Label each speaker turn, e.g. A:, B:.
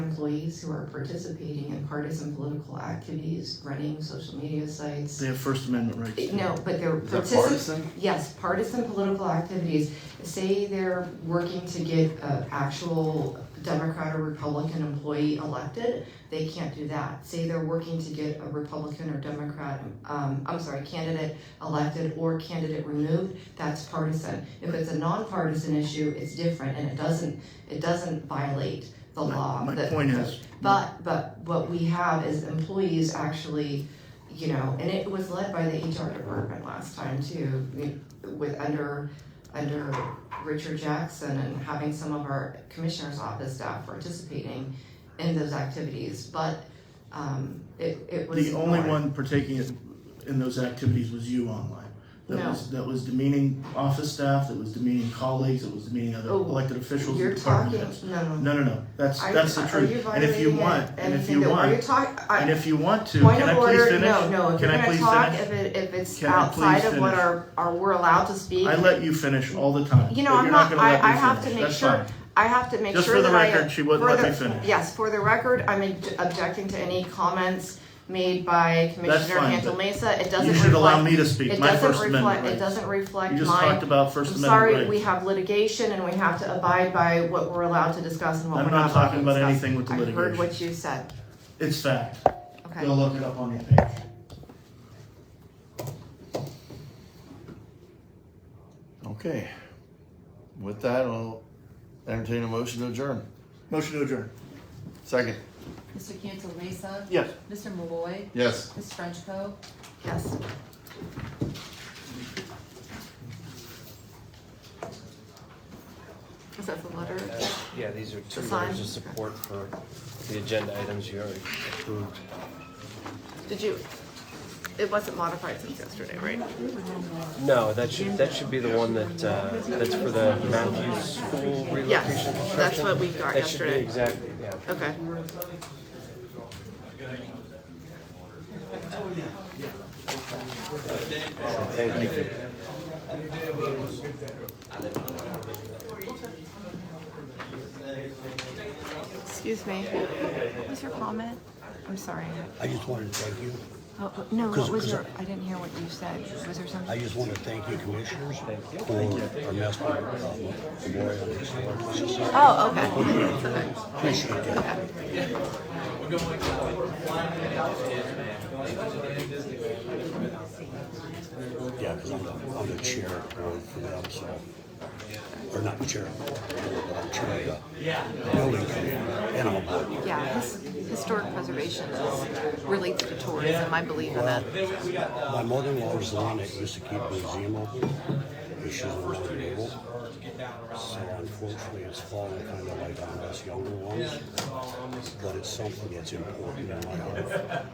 A: employees who are participating in partisan political activities, running social media sites.
B: They have First Amendment rights.
A: No, but they're
C: Is that
A: participating.
C: partisan?
A: Yes, partisan political activities, say they're working to get an actual Democrat or Republican employee elected, they can't do that. Say they're working to get a Republican or Democrat, um, I'm sorry, candidate elected or candidate removed, that's partisan. If it's a nonpartisan issue, it's different and it doesn't, it doesn't violate the
B: My-
A: law.
B: My
A: The-
B: point
A: the-
B: is,
A: but, but what we have is employees actually, you know, and it was led by the HR department last time too, you- with under, under Richard Jackson and having some of our commissioner's office staff participating in those activities, but, um, it, it was.
B: the only
A: ignored.
B: one partaking in- in those activities was you online. That
A: No.
B: was, that was demeaning office staff, that was demeaning colleagues, that was demeaning other
A: Oh,
B: elected officials
A: You're
B: and department
A: talking,
B: heads.
A: no, no.
B: No, no, no, that's,
A: Are-
B: that's the
A: are
B: truth. And if you
A: violating
B: want, and if
A: anything
B: you
A: that- Are you
B: want,
A: talking,
B: and if you want to,
A: Point
B: can I
A: of
B: please
A: order,
B: finish?
A: no, no, if
B: Can
A: you're
B: I
A: gonna
B: please
A: talk,
B: finish?
A: if it, if it's
B: Can I
A: outside
B: please
A: of what
B: finish?
A: our, our, we're allowed to speak.
B: I let you finish all the time.
A: You know,
B: but
A: I'm
B: you're
A: not,
B: gonna
A: I,
B: let me
A: I have to
B: finish.
A: make
B: That's
A: sure,
B: fine.
A: I have to make
B: Just
A: sure
B: for the
A: that I.
B: record, she wouldn't
A: for
B: let
A: the-
B: me finish.
A: Yes, for the record, I'm obj- objecting to any comments made by Commissioner
B: fine,
A: Cantal
B: but
A: Mesa, it doesn't reflect.
B: You should allow me to speak,
A: It
B: my
A: doesn't
B: First Amendment
A: reflect, it
B: rights.
A: doesn't reflect my.
B: You just talked about First
A: I'm
B: Amendment
A: sorry, we
B: rights.
A: have litigation and we have to abide by what we're allowed to discuss and what
B: I'm
A: we're
B: not
A: not allowed to
B: talking
A: discuss.
B: about anything with the
A: I heard
B: litigation.
A: what you said,
B: It's fact.
A: okay.
B: Go look it up on your page.
C: Okay. With that, I'll entertain a motion to adjourn.
B: Motion to adjourn.
C: Second.
D: Mr. Cancel Mesa,
B: Yes.
D: Mr. Malloy,
C: Yes.
D: Ms. Frenchco.
A: Yes. Is that the letter?
E: Yeah, these are Uh, two
A: Sign.
E: letters of support for the agenda items you already approved.
A: Did you, it wasn't modified since yesterday, right?
E: No, that should, that should be the one that, uh, that's for the Mountain View School
A: Yes,
E: relocation construction.
A: that's what we got
E: That should
A: yesterday.
E: be exactly, yeah.
A: Okay.
E: Thank you.
A: Excuse me. What was your comment? I'm sorry.
F: I just wanted to thank you.
A: Oh, oh, No, what
F: Cause-
A: was
F: cause
A: your, I didn't hear what you said. Was there
F: I
A: something?
F: just want to thank you, commissioners, for our master problem.
A: Oh, okay.
F: Appreciate that. Yeah, because I'm the, I'm the chair of the board for them, so, or not chair, of the board, but I'm chair of the building committee, and I'm a board member.
A: Yeah, his- historic preservation is related to tourism. I believe in that.
F: My mother-in-law was the one that used to keep the museum open, but she's no longer able. So unfortunately, it's fallen kind of like on us younger ones, but it's something that's important in my life.